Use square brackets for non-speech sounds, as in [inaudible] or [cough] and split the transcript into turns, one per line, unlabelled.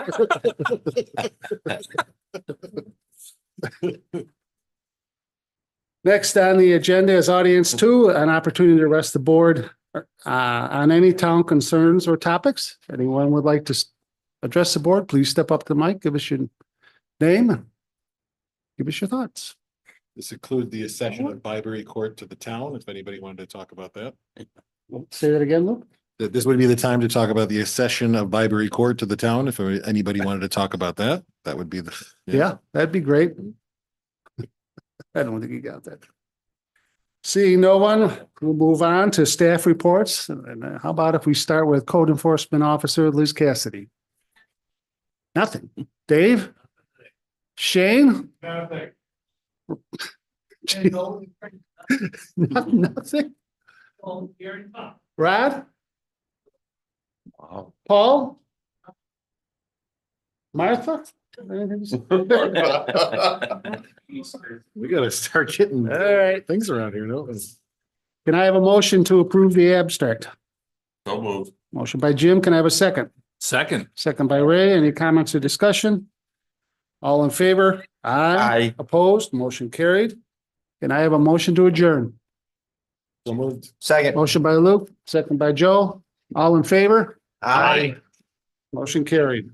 [laughs] Next on the agenda is audience two, an opportunity to rest the board uh, on any town concerns or topics. Anyone would like to s- address the board, please step up to the mic, give us your name. Give us your thoughts.
This include the accession of Byberry Court to the town, if anybody wanted to talk about that.
Say that again, Luke?
That this would be the time to talk about the accession of Byberry Court to the town, if anybody wanted to talk about that, that would be the.
Yeah, that'd be great. [laughs] I don't think you got that. Seeing no one, we'll move on to staff reports. And uh, how about if we start with Code Enforcement Officer Liz Cassidy? Nothing. Dave? Shane? Nothing. [laughs] Nothing? Brad? Paul? Martha? Anything to say?
[laughs] We gotta start getting
All right.
things around here, no?
Can I have a motion to approve the abstract?
So moved.
Motion by Jim. Can I have a second?
Second.
Second by Ray. Any comments or discussion? All in favor? Aye. Opposed? Motion carried. Can I have a motion to adjourn?
So moved.
Second.
Motion by Luke, second by Joe. All in favor?
Aye.
Motion carried.